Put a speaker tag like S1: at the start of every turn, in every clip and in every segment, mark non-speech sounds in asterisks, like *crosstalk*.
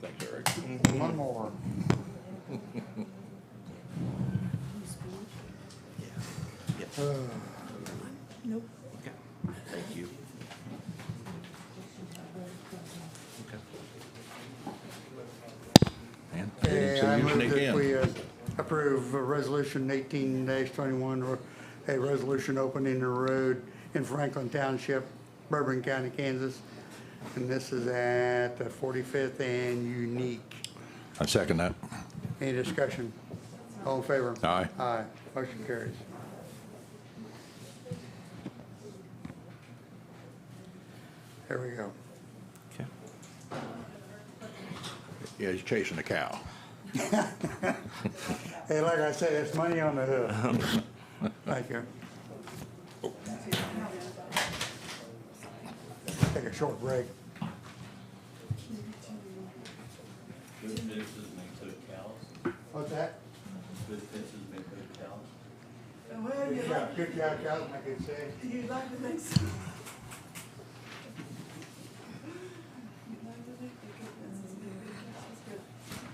S1: Thanks, Eric.
S2: One more.
S3: Nope.
S1: Okay, thank you. Okay. Man, they didn't
S2: Okay,
S1: say
S2: I
S1: you
S2: move
S1: sneak
S2: that
S1: in.
S2: we uh, approve uh, Resolution eighteen twenty-one, or a resolution opening the road in Franklin Township, Bourbon County, Kansas. And this is at the forty-fifth and Unique.
S1: I second that.
S2: Any discussion? All in favor?
S1: Aye.
S2: Aye. Motion carries. There we go.
S1: Okay. Yeah, he's chasing a cow.
S2: Hey, like I said, it's money on the hood. Thank you. Take a short break.
S4: Good fences make good cows.
S2: What's that?
S4: Good fences make good cows.
S3: Well,
S2: Good job, good job, guys, I can say.
S3: you'd like to think so. You'd like to think that good business is good,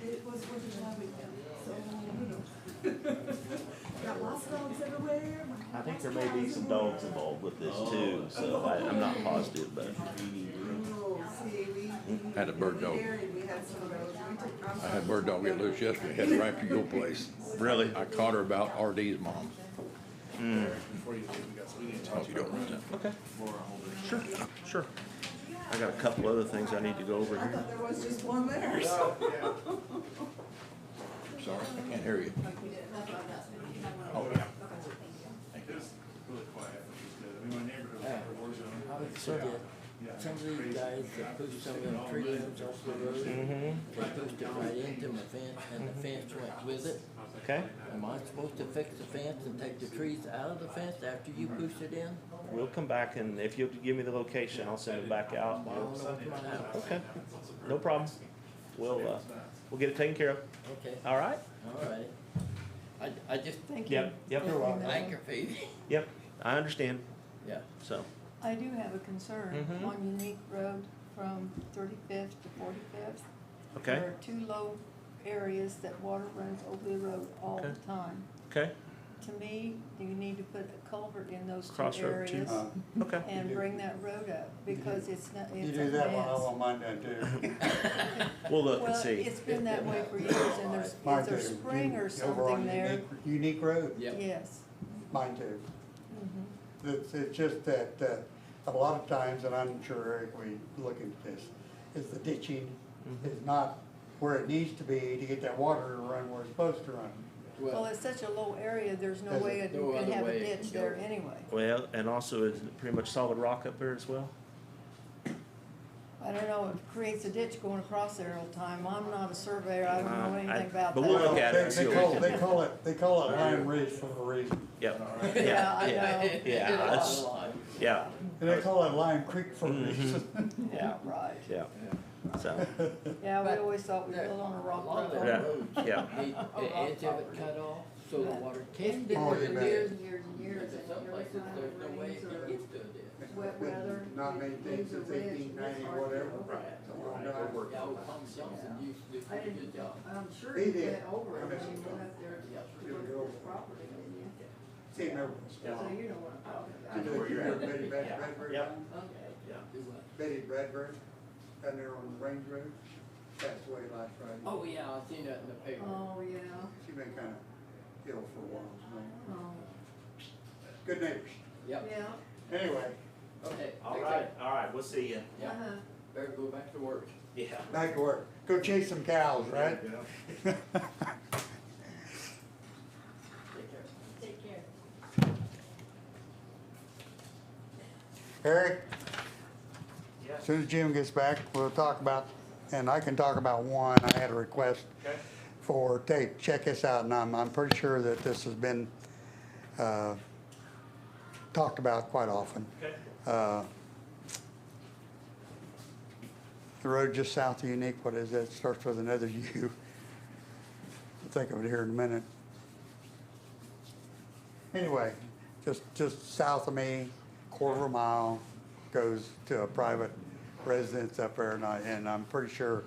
S3: good business is good. It was worth it last weekend, so, you know. Got lost dogs everywhere.
S5: I think there may be some dogs involved with this too, so I, I'm not positive, but
S1: Had a bird dog. I
S3: I
S1: had bird dog get loose yesterday, headed right for your place.
S5: really,
S1: I caught her about RD's mom.
S6: Before you leave, we got something we need to
S1: Oh,
S6: talk
S1: you don't want that.
S5: okay,
S6: more on over.
S5: sure, sure. I got a couple other things I need to go over
S3: I
S5: here.
S3: thought there was just one there, so.
S1: Sorry, I can't hear you. Oh, yeah.
S6: It was really quiet, which is good. I mean, my neighborhood was under war zone.
S7: So did,
S6: Yeah,
S7: some of
S6: crazy.
S7: these guys that put some of them tree limbs off the road, they pushed it right into my fence, and the fence went with it.
S5: Okay,
S7: Am I supposed to fix the fence and take the trees out of the fence after you pushed it in?
S5: we'll come back and if you'll give me the location, I'll send it back out.
S7: I don't know what's going on.
S5: Okay, no problem. We'll, uh, we'll get it taken care of.
S7: Okay,
S5: All right?
S7: all right. I, I just think
S5: Yep, yep,
S7: aggravated.
S5: yep. I understand,
S7: Yeah.
S5: so.
S8: I do have a concern
S5: Mhm.
S8: on Unique Road from thirty-fifth to forty-fifth.
S5: Okay,
S8: There are two low areas that water runs over the road all the
S5: Okay.
S8: time.
S5: okay,
S8: To me, you need to put a culvert in those two
S5: Crossroad too.
S8: areas
S2: Uh,
S5: okay.
S8: and
S2: You do.
S8: bring that road up because it's not,
S2: You
S8: it's a
S2: do that one, I
S8: mess.
S2: want mine done too.
S5: We'll look and
S8: Well,
S5: see.
S8: it's been that way for years and there's,
S2: Mine
S8: is
S2: too.
S8: there spring or
S2: You- over on
S8: something there?
S2: Unique- Unique Road,
S7: Yep.
S8: Yes.
S2: mine too.
S8: Mhm.
S2: It's, it's just that, uh, a lot of times, and I'm sure Eric, we look at this, is the ditching is not where it needs to be to get that water to run where it's supposed to run.
S8: Well, it's such a low area, there's no
S2: There's
S8: way it-
S7: no
S8: you can
S7: other
S8: have a
S7: way it
S8: ditch
S7: can go.
S8: there anyway.
S5: Well, and also is it pretty much solid rock up there as well?
S8: I don't know, it creates a ditch going across there all the time. I'm not a surveyor, I don't know
S5: Uh, I-
S8: anything about that.
S5: but we'll look at it and
S2: They-
S5: see
S2: They
S5: what
S2: call,
S5: we
S2: they
S5: can-
S2: call it, they call it Lime Ridge for a reason.
S5: Yep,
S8: Yeah, I know.
S5: Yeah, that's- yeah,
S2: And they call it Lime Creek for a
S5: Mm-hmm.
S2: reason. *laughs*
S5: yeah,
S8: Right.
S5: yeah. So,
S8: Yeah, we
S7: But
S8: always thought we
S7: there-
S8: lived on a rock
S7: A lot of
S8: road.
S5: Yeah,
S7: the roads need
S5: yeah.
S7: the edge of it cut off, so the water can get
S2: Oh,
S7: to
S2: you
S7: the
S2: bet.
S7: ditch.
S8: Years and
S7: Because
S8: years
S7: in
S8: and
S7: some
S8: years,
S7: places, there's no way it
S8: rains
S7: can
S8: or
S7: get to the ditch.
S8: wet weather.
S2: Not many things
S8: leaves
S2: since
S8: are red,
S2: eighteen ninety,
S8: it's hard to
S2: whatever.
S8: get over it.
S7: Yeah, old Tommy Johnson used to do
S8: I
S7: a good
S8: didn't,
S7: job.
S8: I'm sure
S2: He
S8: you
S2: did.
S8: get over
S2: I
S8: it when
S2: bet
S8: you
S2: you
S8: went up there to
S2: You'll go
S8: look at
S2: over
S8: this
S2: it.
S8: property, didn't you?
S2: See, never.
S8: So you know what I'm talking about.
S2: You know, you remember Betty
S5: Yeah.
S2: Bradbury,
S5: Yep.
S7: Okay.
S5: yeah.
S7: Do what?
S2: Betty Bradbury, down there on the Range Road, passed away last Friday.
S7: Oh, yeah, I seen that in the paper.
S8: Oh, yeah.
S2: She been kinda ill for a while, so,
S8: Oh,
S2: good neighbors.
S7: Yep,
S8: yeah.
S2: Anyway,
S7: okay.
S5: All
S7: fix
S5: right,
S7: it.
S5: all right, we'll see you.
S7: Yeah,
S8: Uh-huh.
S7: better go back to work.
S5: Yeah.
S2: back to work, go chase some cows, right? *laughs*
S7: Take care.
S8: Take care.
S2: Eric?
S5: Yeah.
S2: As Soon as Jim gets back, we'll talk about, and I can talk about one, I had a request
S5: Okay.
S2: for, take, check this out, and I'm, I'm pretty sure that this has been, uh, talked about quite often.
S5: Okay.
S2: Uh, The road just south of Unique, what is that, starts with another *laughs* U. I'll think of it here in a minute. Anyway, just, just south of me, quarter of a mile, goes to a private residence up there, and I, and I'm pretty sure